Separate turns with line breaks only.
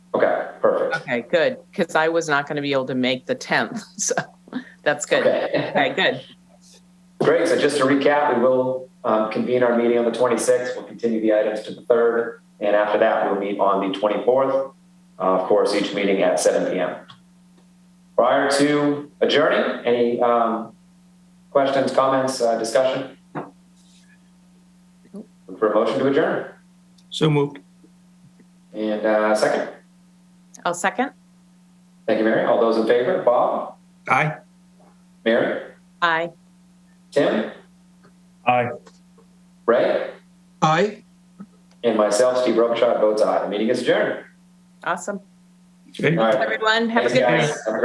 Okay, good, because I was not going to be able to make the 10th, so that's good.
Okay.
Okay, good.
Great, so just to recap, we will um, convene our meeting on the 26th. We'll continue the items to the 3rd, and after that, we'll meet on the 24th. Uh, Of course, each meeting at 7 PM. Prior to adjourning, any um, questions, comments, uh, discussion? Look For a motion to adjourn,
So moved.
and uh, second.
I'll second.
Thank you, Mary. All those in favor, Bob,
Aye.
Mary,
Aye.
Tim,
Aye.
Ray,
Aye.
and myself, Steve Robichaud, votes aye. The meeting is adjourned.
Awesome.
All right.
Everyone, have a
Thanks,
good night.
guys. Have a